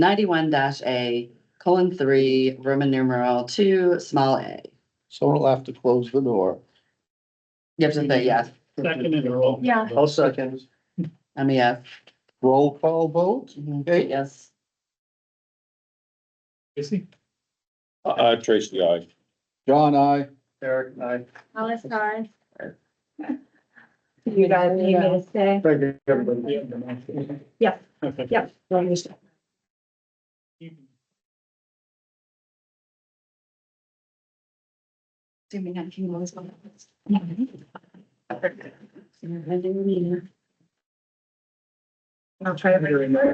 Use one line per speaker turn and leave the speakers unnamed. ninety-one dash A, colon three, Roman numeral two, small a.
Someone will have to close the door.
You have to say yes,
Second in a row.
Yeah.
All seconds.
I'm a yes.
Roll call vote?
Mhm.
Okay.
E Yes.
Tracy?
Uh, Tracy, I.
John, I.
Eric, I.
Alice, hi.
You guys need me to stay?
Thank you, everybody.
Yeah.
Okay.
Yeah.
I'll try
Very nice.